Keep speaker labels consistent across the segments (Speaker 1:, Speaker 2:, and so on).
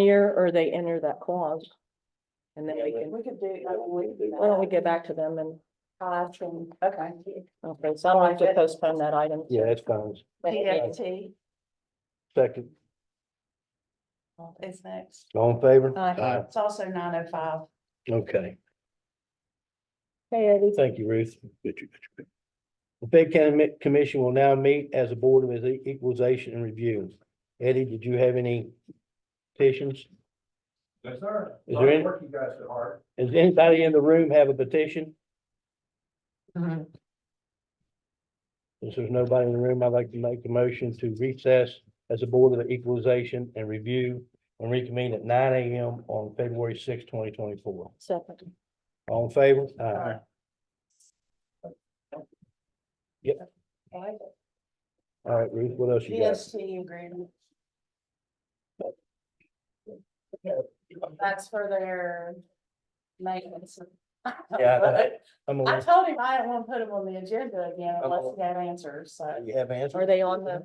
Speaker 1: year or they enter that clause. And then we can,
Speaker 2: We could do, I mean, we could do that.
Speaker 1: why don't we get back to them and,
Speaker 2: Cost and, okay.
Speaker 1: okay, so I'll have to postpone that item.
Speaker 3: Yeah, that's fine.
Speaker 2: PFT
Speaker 3: Second,
Speaker 2: is next.
Speaker 3: all in favor?
Speaker 1: Aye.
Speaker 2: It's also nine oh five.
Speaker 3: Okay,
Speaker 1: Hey, Eddie.
Speaker 3: thank you, Ruth. The Fayette County Mi- Commission will now meet as a board of E- equalization and review. Eddie, did you have any petitions?
Speaker 4: Yes, sir.
Speaker 3: Is there any-
Speaker 4: Work you guys so hard.
Speaker 3: Does anybody in the room have a petition?
Speaker 2: Mm-hmm.
Speaker 3: Since there's nobody in the room, I'd like to make the motion to recess as a board of equalization and review and reconvene at nine AM on February sixth, twenty twenty-four.
Speaker 1: Second.
Speaker 3: All in favor? Aye. All right, Ruth, what else you got?
Speaker 2: PST agreement. That's for their maintenance.
Speaker 3: Yeah, that- I'm
Speaker 2: I
Speaker 3: aware.
Speaker 2: told him I didn't want to put him on the agenda again unless he had answers, so
Speaker 3: You have answers?
Speaker 1: Are they on the,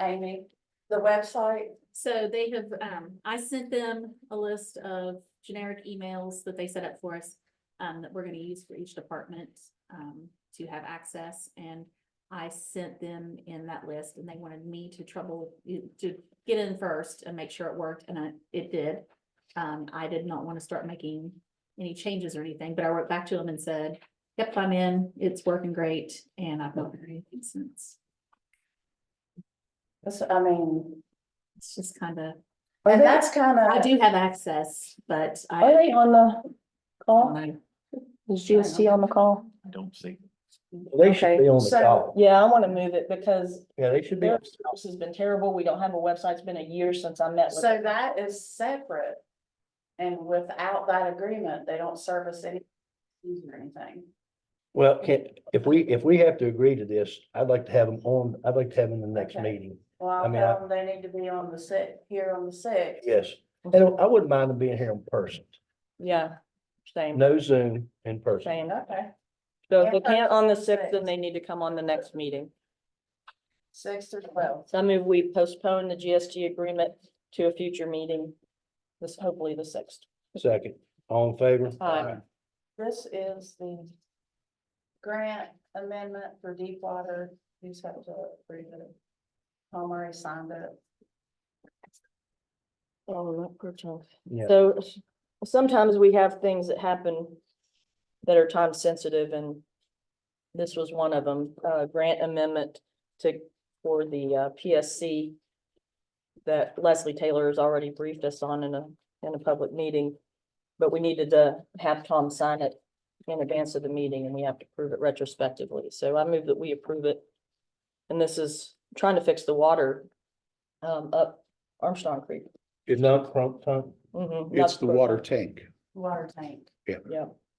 Speaker 2: Amy, the website.
Speaker 5: So they have, um, I sent them a list of generic emails that they set up for us, um, that we're gonna use for each department, um, to have access, and I sent them in that list, and they wanted me to trouble, to get in first and make sure it worked, and I, it did. Um, I did not want to start making any changes or anything, but I wrote back to them and said, yep, I'm in, it's working great, and I've not heard anything since.
Speaker 2: That's, I mean,
Speaker 5: It's just kind of,
Speaker 2: and that's kind
Speaker 5: I
Speaker 2: of,
Speaker 5: do have access, but I.
Speaker 1: are they on the call?
Speaker 5: Online.
Speaker 1: Is GST on the call?
Speaker 3: They should be on the
Speaker 2: So-
Speaker 3: call.
Speaker 1: Yeah, I want to move it because
Speaker 3: Yeah, they should be.
Speaker 1: their house has been terrible. We don't have a website. It's been a year since I met with
Speaker 2: so that is separate. And without that agreement, they don't service any, or anything.
Speaker 3: Well, can, if we, if we have to agree to this, I'd like to have them on, I'd like to have them in the next
Speaker 2: Okay.
Speaker 3: meeting.
Speaker 2: Well,
Speaker 3: I
Speaker 2: I'll
Speaker 3: mean, I-
Speaker 2: tell them they need to be on the six, here on the six.
Speaker 3: Yes. And I wouldn't mind them being here in person.
Speaker 1: Yeah, same,
Speaker 3: No Zoom in person.
Speaker 1: same.
Speaker 2: Okay,
Speaker 1: So if they can't on the sixth, then they need to come on the next meeting.
Speaker 2: six to twelve.
Speaker 1: So I move we postpone the GST agreement to a future meeting. This hopefully the sixth.
Speaker 3: Second, all in favor?
Speaker 1: Aye.
Speaker 2: This is the grant amendment for Deepwater. You just have to approve it. Tom already signed it.
Speaker 1: Oh, that poor child.
Speaker 3: Yeah.
Speaker 1: So s- sometimes we have things that happen that are time sensitive and this was one of them, uh, grant amendment to, for the uh, PSC that Leslie Taylor has already briefed us on in a, in a public meeting. But we needed to have Tom sign it in advance of the meeting and we have to prove it retrospectively. So I move that we approve it. And this is trying to fix the water um, up Armstrong Creek.
Speaker 3: It's not Crump Tongue.
Speaker 1: Mhm, not
Speaker 6: It's the water tank.
Speaker 2: Water tank.
Speaker 1: Yeah,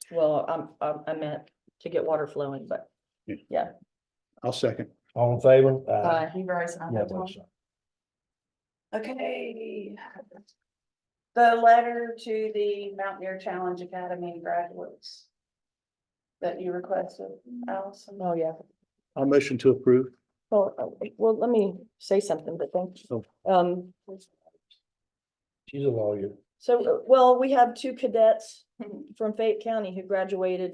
Speaker 1: well, I'm, I'm, I meant to get water flowing, but
Speaker 6: I'll second.
Speaker 3: All in favor?
Speaker 1: Aye.
Speaker 2: You've already signed
Speaker 3: Yeah,
Speaker 2: it,
Speaker 3: well,
Speaker 2: Tom. Okay. The letter to the Mountaineer Challenge Academy graduates that you requested, Allison.
Speaker 1: Oh, yeah.
Speaker 6: I'll motion to approve.
Speaker 1: Well, uh, well, let me say something, but thank you.
Speaker 6: Oh.
Speaker 1: Um,
Speaker 3: She's a lawyer.
Speaker 1: so, uh, well, we have two cadets from Fayette County who graduated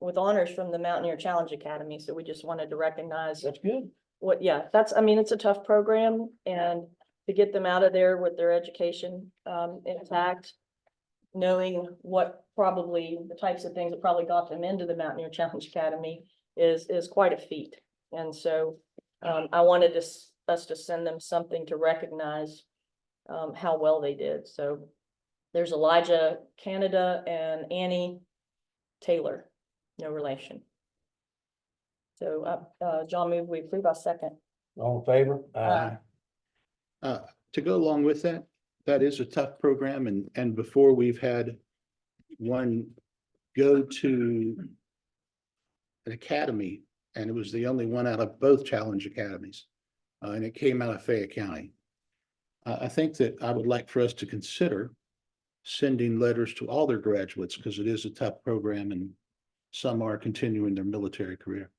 Speaker 1: with honors from the Mountaineer Challenge Academy, so we just wanted to recognize
Speaker 3: That's good.
Speaker 1: what, yeah, that's, I mean, it's a tough program and to get them out of there with their education um intact. Knowing what probably the types of things that probably got them into the Mountaineer Challenge Academy is is quite a feat. And so um I wanted us us to send them something to recognize um how well they did. So there's Elijah Canada and Annie Taylor, no relation. So, uh, uh, John move, we approve our second.
Speaker 3: All in favor? Aye.
Speaker 6: Uh, to go along with that, that is a tough program and, and before we've had one go to an academy and it was the only one out of both challenge academies. uh, and it came out of Fayette County. I, I think that I would like for us to consider sending letters to all their graduates because it is a tough program and some are continuing their military career.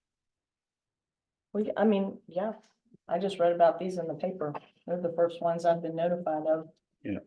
Speaker 1: We, I mean, yeah, I just read about these in the paper. They're the first ones I've been notified of.
Speaker 6: Yeah.